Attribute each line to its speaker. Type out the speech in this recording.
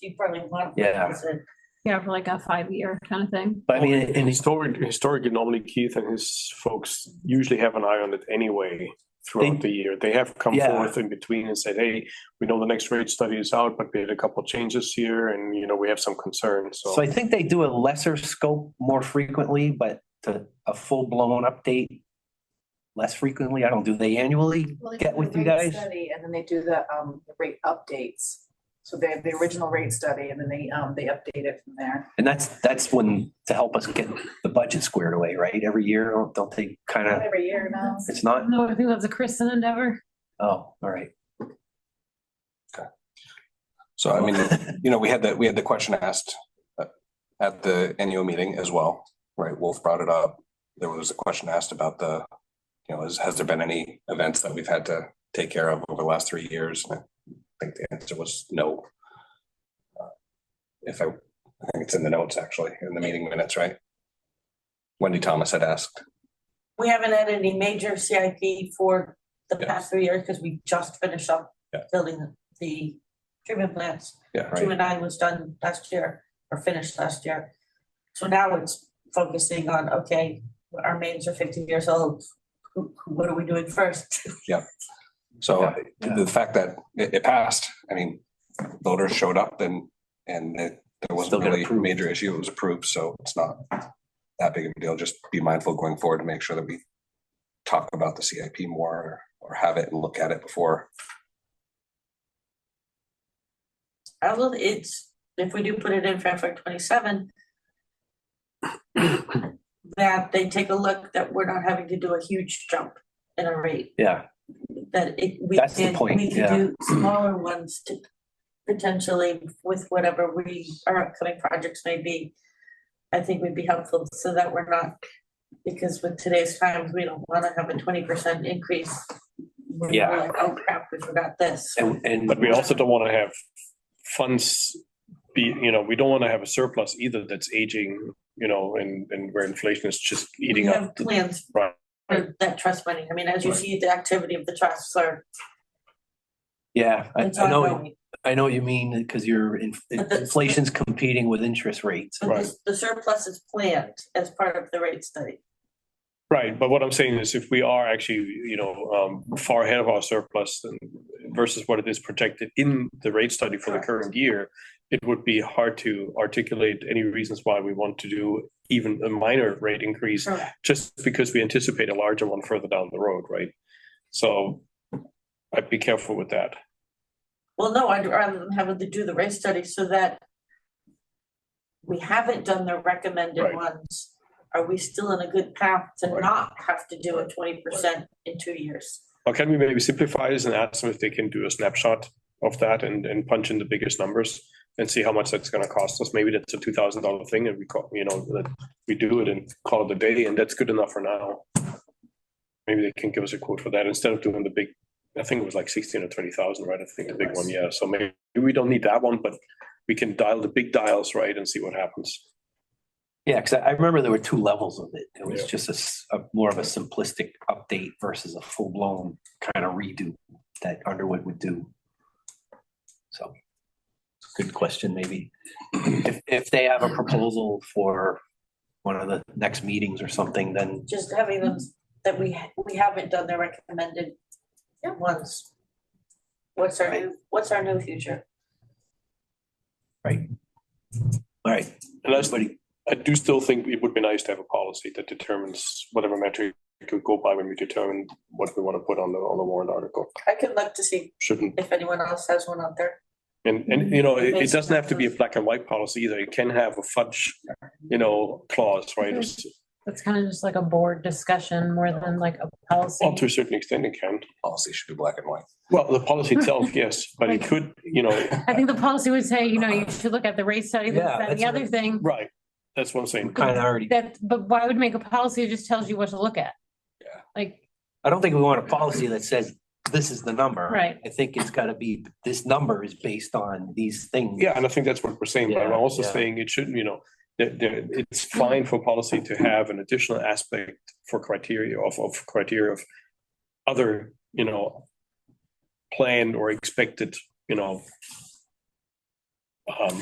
Speaker 1: you probably want.
Speaker 2: Yeah.
Speaker 3: Yeah, for like a five-year kind of thing.
Speaker 2: But I mean,
Speaker 4: and historic, historically, normally Keith and his folks usually have an eye on it anyway throughout
Speaker 2: They-
Speaker 4: the year. They have come
Speaker 2: Yeah.
Speaker 4: forth in between and said, hey, we know the next rate study is out, but we had a couple changes here and, you know, we have some concerns,
Speaker 2: so
Speaker 4: so.
Speaker 2: I think they do a lesser scope more frequently, but to a full blown update less frequently. I don't, do they annually
Speaker 5: Well, they
Speaker 2: get
Speaker 5: do
Speaker 2: with
Speaker 5: the
Speaker 2: you
Speaker 5: rate
Speaker 2: guys?
Speaker 5: study, And then they do the, um, the rate updates. So they have the original rate study and then they, um, they update it from there.
Speaker 2: And that's, that's when, to help us get the budget squared away, right? Every year, don't- don't they kind of,
Speaker 5: Every year now.
Speaker 2: it's not,
Speaker 3: No, I think that's a Kristen endeavor.
Speaker 2: oh, all right.
Speaker 6: So I mean, you know, we had that, we had the question asked uh, at the annual meeting as well, right? Wolf brought it up. There was a question asked about the, you know, has, has there been any events that we've had to take care of over the last three years? And I think the answer was no. Uh, If I, I think it's in the notes actually, in the meeting minutes, right? Wendy Thomas had asked.
Speaker 1: We haven't had any major CIP for the
Speaker 6: Yeah.
Speaker 1: past three years because we just finished up
Speaker 6: Yeah.
Speaker 1: building the treatment plants.
Speaker 6: Yeah, right.
Speaker 1: Two and nine was done last year or finished last year. So now it's focusing on, okay, our maids are fifty years old. Who, who- what are we doing first?
Speaker 6: So
Speaker 2: Yeah, yeah.
Speaker 6: the fact that it, it passed, I mean, voters showed up and, and it, there
Speaker 2: Still
Speaker 6: wasn't
Speaker 2: got
Speaker 6: really a
Speaker 2: approved.
Speaker 6: major issue. It was approved, so it's not that big of a deal. Just be mindful going forward to make sure that we talk about the CIP more or have it and look at it before.
Speaker 1: I will, it's, if we do put it in for FY twenty-seven, that they take a look that we're not having to do a huge jump in a rate,
Speaker 2: Yeah,
Speaker 1: that it, we
Speaker 2: That's the
Speaker 1: can,
Speaker 2: point,
Speaker 1: we
Speaker 2: yeah.
Speaker 1: can do smaller ones to potentially with whatever we, our upcoming projects may be. I think would be helpful so that we're not, because with today's times, we don't wanna have a twenty percent increase. We're
Speaker 2: Yeah.
Speaker 1: like, Oh crap, we forgot this.
Speaker 2: and, and.
Speaker 4: But we also don't want to have funds be, you know, we don't want to have a surplus either that's aging, you know, and, and where inflation is just eating
Speaker 1: We
Speaker 4: up.
Speaker 1: have Plans
Speaker 4: Right.
Speaker 1: for that trust money. I mean, as you
Speaker 4: Right.
Speaker 1: see, the activity of the trusts are.
Speaker 2: Yeah, I,
Speaker 1: it's
Speaker 2: I know,
Speaker 1: ongoing.
Speaker 2: I know what you mean, because your in-
Speaker 1: But the-
Speaker 2: inflation's competing with interest rates.
Speaker 1: But
Speaker 4: Right.
Speaker 1: this- The surplus is planned as part of the rate study.
Speaker 4: Right, but what I'm saying is if we are actually, you know, um, far ahead of our surplus than versus what it is projected in the rate study for the
Speaker 1: Correct.
Speaker 4: current year, it would be hard to articulate any reasons why we want to do even a minor rate increase
Speaker 1: Correct.
Speaker 4: just because we anticipate a larger one further down the road, right? So I'd be careful with that.
Speaker 1: Well, no, I'd rather than having to do the rate study so that we haven't done the recommended
Speaker 4: Right.
Speaker 1: ones. Are we still in a good path to
Speaker 6: Right.
Speaker 1: not have to do a twenty percent in two years?
Speaker 4: Or can we maybe simplify this and ask them if they can do a snapshot of that and, and punch in the biggest numbers and see how much that's gonna cost us? Maybe that's a two thousand dollar thing and we call, you know, that we do it and call it a day and that's good enough for now. Maybe they can give us a quote for that instead of doing the big, I think it was like sixteen or twenty thousand, right? I think the big one, yeah. So maybe we don't need that one, but we can dial the big dials, right, and see what happens.
Speaker 2: Yeah, because I remember there were two levels of it. It was
Speaker 4: Yeah.
Speaker 2: just a s- a, more of a simplistic update versus a full-blown kind of redo that Underwood would do. So, good question, maybe. If, if they have a proposal for one of the next meetings or something, then,
Speaker 1: Just having them, that we, ha- we haven't done the recommended ones. What's our new, what's our new future?
Speaker 2: all right,
Speaker 4: And that's like, I do still think it would be nice to have a policy that determines whatever metric we could go by when we determine what we want to put on the, on the warrant article.
Speaker 1: I could look to see
Speaker 4: Shouldn't,
Speaker 1: if anyone else has one out there.
Speaker 4: and, and, you know, it, it doesn't have to be a black and white policy either. It can have a fudge, you know, clause, right?
Speaker 3: That's kind of just like a board discussion more than like a
Speaker 4: Well, to
Speaker 3: policy.
Speaker 4: a certain extent it can.
Speaker 6: Policy should be black and white.
Speaker 4: Well, the policy itself, yes, but it could, you know,
Speaker 3: I think the policy would say, you know, you should look at the rate study, this,
Speaker 2: Yeah,
Speaker 3: that, and the
Speaker 2: that's
Speaker 3: other
Speaker 2: what-
Speaker 3: thing.
Speaker 4: right. That's what I'm saying.
Speaker 2: kind of already,
Speaker 3: That, but why would make a policy that just tells you what to look at?
Speaker 6: Yeah.
Speaker 3: Like,
Speaker 2: I don't think we want a policy that says this is the number.
Speaker 3: Right.
Speaker 2: I think it's gotta be, this number is based on these things.
Speaker 4: Yeah, and I think that's what we're saying, but I'm
Speaker 2: Yeah,
Speaker 4: also
Speaker 2: yeah.
Speaker 4: saying it shouldn't, you know, that, that it's fine for policy to have an additional aspect for criteria of, of criteria of other, you know, planned or expected, you know, Um,